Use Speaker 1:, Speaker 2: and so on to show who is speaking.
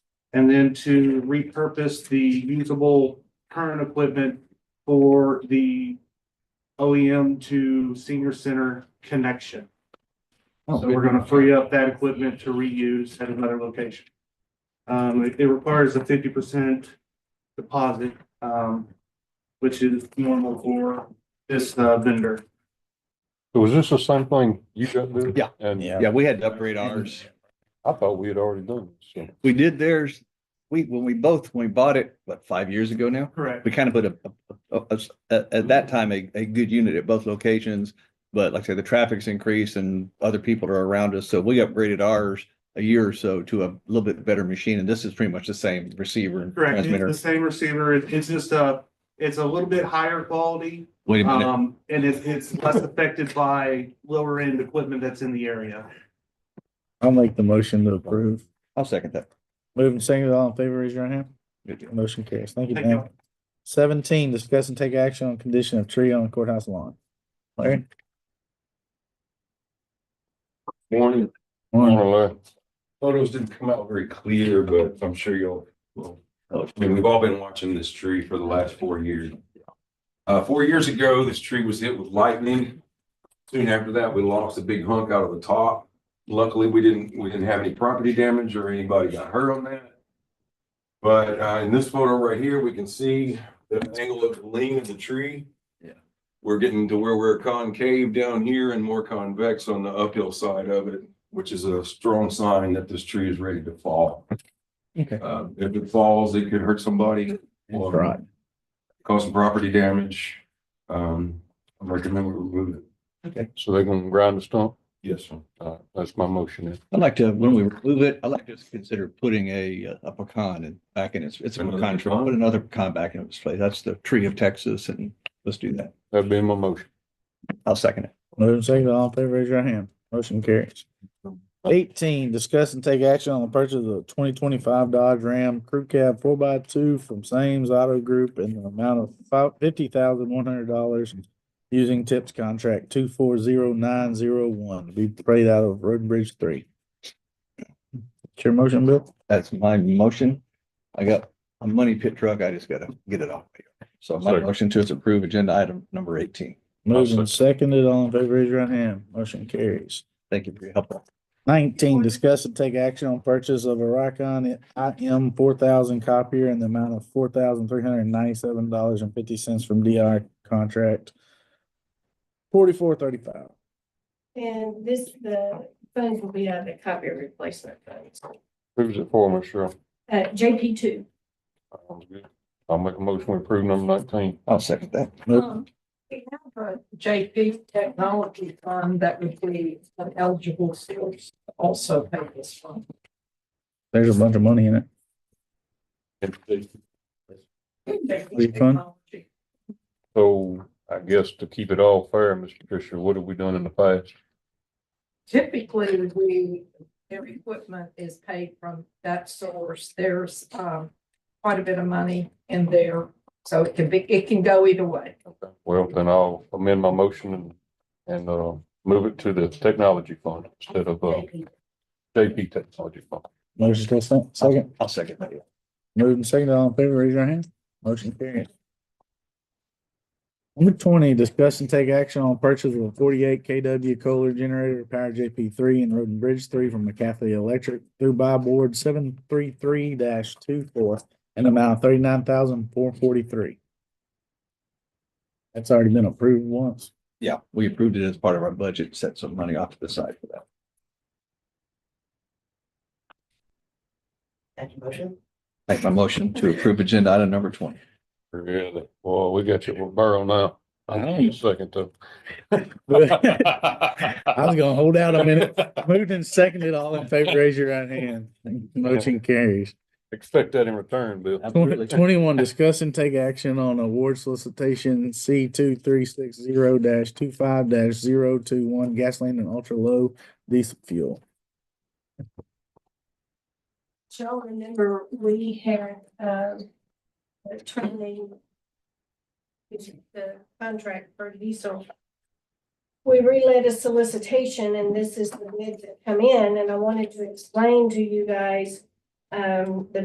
Speaker 1: And then to repurpose the usable current equipment for the OEM to senior center connection.
Speaker 2: Oh,
Speaker 1: So we're gonna free up that equipment to reuse at another location. Um, it, it requires a fifty percent deposit, um, which is normal for this uh, vendor.
Speaker 3: Was this the same thing you got there?
Speaker 2: Yeah.
Speaker 3: And
Speaker 2: Yeah, we had to upgrade ours.
Speaker 3: I thought we had already done this. so.
Speaker 2: We did theirs. We, when we both, when we bought it, what, five years ago now?
Speaker 1: Correct.
Speaker 2: We kind of put a, a- a- a- a- at that time, a, a good unit at both locations. But like I said, the traffic's increased and other people are around us. So we upgraded ours a year or so to a little bit better machine. And this is pretty much the same receiver and
Speaker 1: Correct. It's
Speaker 2: transmitter.
Speaker 1: the same receiver. It- It's just a, it's a little bit higher quality.
Speaker 2: Wait a minute.
Speaker 1: Um, and it's, it's less affected by lower end equipment that's in the area.
Speaker 4: I'll make the motion to approve.
Speaker 1: uh,
Speaker 2: I'll second that.
Speaker 4: Moving second, all in favor, raise your right hand. Motion carries. Thank you,
Speaker 1: Thank you.
Speaker 4: Dan. Seventeen, discuss and take action on condition of tree on courthouse lawn. Larry?
Speaker 3: Morning.
Speaker 4: Morning.
Speaker 5: Photos didn't come out very clear, but I'm sure you'll, will
Speaker 1: Oh,
Speaker 5: I mean, we've all been watching this tree for the last four years. Uh, four years ago, this tree was hit with lightning. Soon after that, we lost a big hunk out of the top. Luckily, we didn't, we didn't have any property damage or anybody got hurt on that. But, uh, in this photo right here, we can see the angle of the lean of the tree.
Speaker 2: Yeah.
Speaker 5: We're getting to where we're concave down here and more convex on the uphill side of it, which is a strong sign that this tree is ready to fall.
Speaker 2: Okay.
Speaker 5: Uh, if it falls, it could hurt somebody or
Speaker 2: Right.
Speaker 5: cause some property damage. Um, I recommend we remove it.
Speaker 3: So they're gonna grind the stump?
Speaker 5: Yes, sir.
Speaker 3: Uh, that's my motion.
Speaker 2: I'd like to, when we remove it, I'd like to consider putting a, a pecan in, back in its, it's a
Speaker 5: Another
Speaker 2: pecan tree,
Speaker 5: pecan?
Speaker 2: put another pecan back in its place. That's the tree of Texas and let's do that.
Speaker 3: That'd be my motion.
Speaker 2: I'll second it.
Speaker 4: Moving second, all in favor, raise your right hand. Motion carries. Eighteen, discuss and take action on the purchase of the twenty twenty-five Dodge Ram Crew Cab four x two from Sames Auto Group in the amount of five, fifty thousand one hundred dollars using tips contract two four zero nine zero one to be paid out of Road and Bridge three. It's your motion, Bill?
Speaker 2: That's my motion. I got a money pit truck. I just gotta get it off. here. So my
Speaker 3: Second.
Speaker 2: motion to approve agenda item number eighteen.
Speaker 4: Moving seconded, all in favor, raise your right hand. Motion carries.
Speaker 2: Thank you for your help.
Speaker 4: Nineteen, discuss and take action on purchase of a Rikon IM four thousand copier in the amount of four thousand three hundred and ninety-seven dollars and fifty cents from DI contract. Forty-four thirty-five.
Speaker 6: And this, the funds will be out of the copier replacement funds.
Speaker 3: Who's it for, Mr. Cheryl?
Speaker 6: Uh, JP two.
Speaker 3: Sounds good. I'll make a motion to approve number nineteen.
Speaker 2: I'll second that.
Speaker 6: Um,
Speaker 7: We have a JP Technology Fund that would be an eligible source to also pay this fund.
Speaker 4: There's a bunch of money in it. Refund?
Speaker 3: So I guess to keep it all fair, Mr. Fisher, what have we done in the past?
Speaker 7: Typically, we, their equipment is paid from that source. There's, um, quite a bit of money in there. So it can be, it can go either way.
Speaker 3: Well, then I'll amend my motion and, and, uh, move it to the technology fund instead of, uh, JP Technology Fund.
Speaker 4: Motion to second, second,
Speaker 2: I'll second that.
Speaker 4: moving second, all in favor, raise your hand. Motion carries. Number twenty, discuss and take action on purchase of a forty-eight KW Kohler generator to power JP three and Road and Bridge three from McCaffrey Electric through by board seven three three 24 in amount of thirty-nine thousand four forty-three. That's already been approved once.
Speaker 2: Yeah, we approved it as part of our budget, set some money off to the side for that.
Speaker 7: That's motion?
Speaker 2: Make my motion to approve agenda item number twenty.
Speaker 3: Really? Well, we got you with Burrow now. I'll give you a second though.
Speaker 4: I was gonna hold out a minute. Moved and seconded, all in favor, raise your right hand. Motion carries.
Speaker 3: Expect that in return, Bill.
Speaker 4: Twenty- Twenty-one, discuss and take action on award solicitation C two three six zero dash two five dash zero two one gasoline and ultra-low diesel fuel.
Speaker 6: Y'all remember we had, um, the training. which is The contract for diesel. We relayed a solicitation and this is the bids that come in and I wanted to explain to you guys, um, the